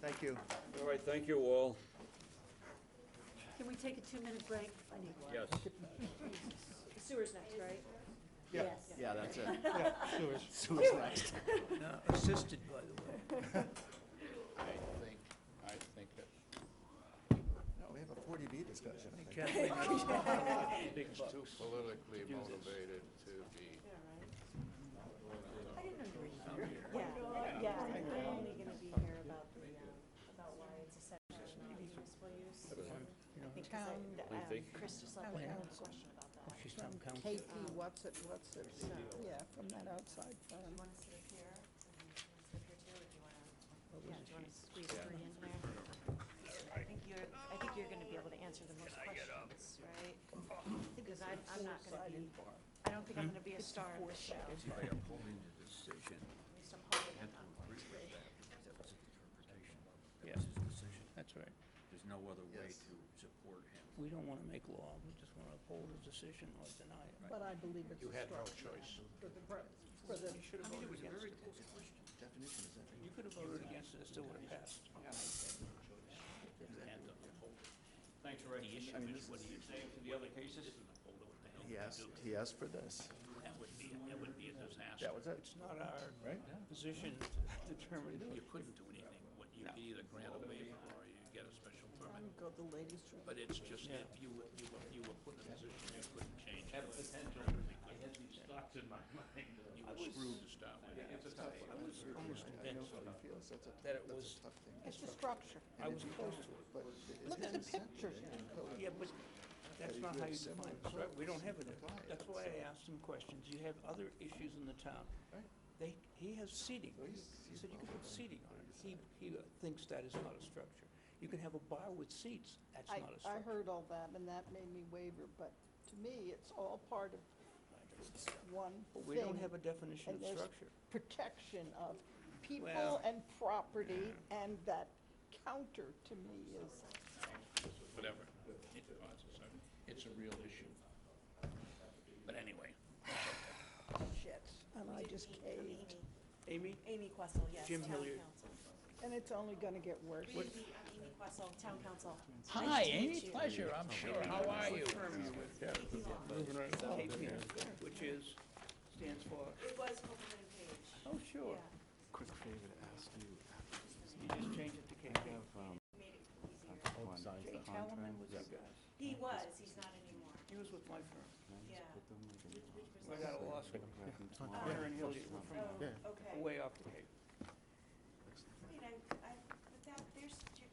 Thank you. All right, thank you all. Can we take a two-minute break? I need one. Yes. Sewer's next, right? Yeah. Yeah, Yes. that's it. Yeah, sewers. Sewer's next. Now, assisted, by the way. I think, I think that. No, we have a 40B discussion. I think. Kathleen, It's too politically motivated to be. I didn't know you were here. Yeah, yeah, I'm only gonna be here about the, um, about why it's essential not municipal use. Because I, the, What do you um, think? Chris just left, me I have a question about that. she's town council. Katie, what's it, what's it, yeah, from that outside You firm. wanna sit up here? And you wanna sit here too, or do you wanna, yeah, do you wanna squeeze three in there? I think you're, I think you're gonna be able to answer the most questions, right? Because I'm, I'm not gonna be, I don't think I'm gonna be a star in this show. By upholding the decision, At least I'm hoping I'm not going to be. that was his interpretation. That was his decision. That's right. There's no other way to support him. We don't want to make law, we just want to uphold his decision or deny it. But I believe it's a You had no strong choice. for the, pro- for the, You should have voted against it. You could have voted against it, it still would have passed. Thanks, Ray. The issue is, what do you say to the other cases? Well, what the hell He do we asked, do? he asked for this. That would be, that would be a disaster. That was it. It's not our Right. position to determine. You couldn't do anything. What, you could either grant a waiver or you get a special I permit. would go the ladies' room. But it's just, Yeah. if you were, you were, you were put in a position you couldn't change. it. I had these thoughts in my mind. uh, You were screwed to start with. I was I almost know convinced how he feels. That's a, that it that's was, a tough thing. It's a structure. I was close to it. But it- it's Look at the his incentive pictures. in the code. Yeah, but that's not how you define it, right? We don't have it. Apply it. That's why I asked some questions. You have other issues in the town. Right. They, he has seating. So he's- He he's said you can bothered put by seating on it. He, he uh, thinks that is not a structure. You can have a bar with seats. That's I, not a I structure. heard all that and that made me waver, but to me, it's all part of one But thing. we don't have a definition and of there's structure. Protection of people Well- and property and that counter to me is, Whatever. It causes, I mean, It's a real issue. But anyway. shit, and I just caved. Amy, Amy Questle, yes, Jim town Hilliard. council. And it's only gonna get worse. Really, I'm Amy Questle, town council. Hi, Amy, pleasure, I'm sure. How are you? KPN, which is, stands for, It was Copeland and Page. oh, sure. Yeah. Quick favor to ask you, You just change it to KP. Made it easier. Oh, one, Jay the Talman was contract, that guy. He was, he's not anymore, He was with my firm. yeah. put them like in Which was I got a law school. paragraph and small Hunter and Hilliard were Oh, from okay. way off the Cape. Wait, I, I, but that, there's, j-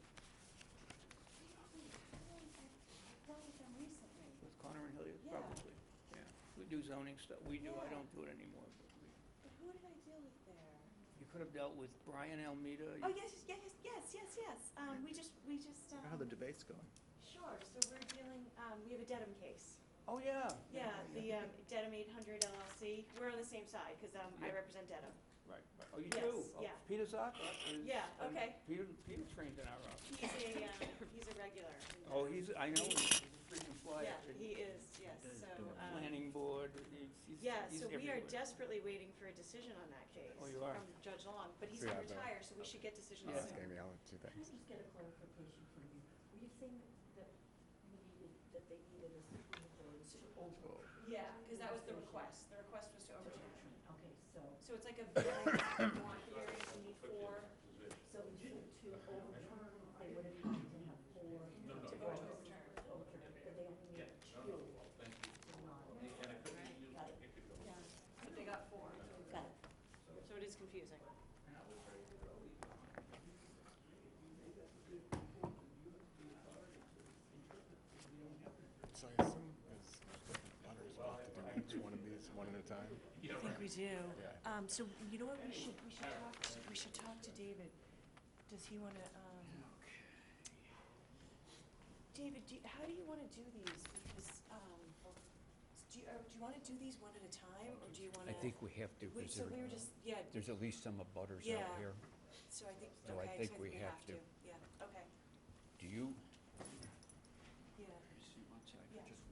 I dealt with them recently. With Connor and Hilliard, Yeah. probably, yeah. We do zoning stuff, we do, I Yeah. don't do it anymore, but we, But who did I deal with there? you could have dealt with Brian Almeida. you- Oh, yes, yes, yes, yes, yes, yes, um, we just, we just, How the um, debate's going. sure, so we're dealing, um, we have a Dedham case. Oh, yeah. Yeah, the, um, Dedham eight hundred LLC, we're on the same side, cause, um, I Yeah. represent Dedham. Right, right. oh, you do? Yes, Oh, yeah. Peter Zoc is. Yeah, um, okay. Peter, Peter trained in our office. He's a, um, he's a regular. in Oh, Dedham. he's, I know, he's a freaking fly Yeah, up in he is, yes, so, um, planning board, he's, he's he's yeah, everywhere. so we are desperately waiting for a decision on that case. Oh, you are. From Judge Long, but he's Yeah, gonna but- retire, so we should get decisions Yeah. soon. Amy, I'll do that. Can I just get a clarification from you? Were you saying that we needed, that they needed a supermajority to over? Yeah, because that was the request. The request was to overturn. Okay, so, So it's like a very long hearing, you need four. so we needed to overturn, they would have had to have four. No, no. To vote to overturn. overturn, but they only needed two. Not- Got it. But they got four. Got it. So it is confusing. So I assume is butters will have to do each one of these one at a time? I think we do. Yeah. Um, so you know what, we should, we should talk, we should talk to David. Does he wanna, um? David, do, you- how do you wanna do these? Because, um, do you, uh, do you wanna do these one at a time, or do you wanna? I think we have to, We, because so we were there- just, yeah, there's at least some abutters Yeah. out here. so I think, So I okay, so I think we have to. to. Yeah, okay, Do you, yeah, yeah. Just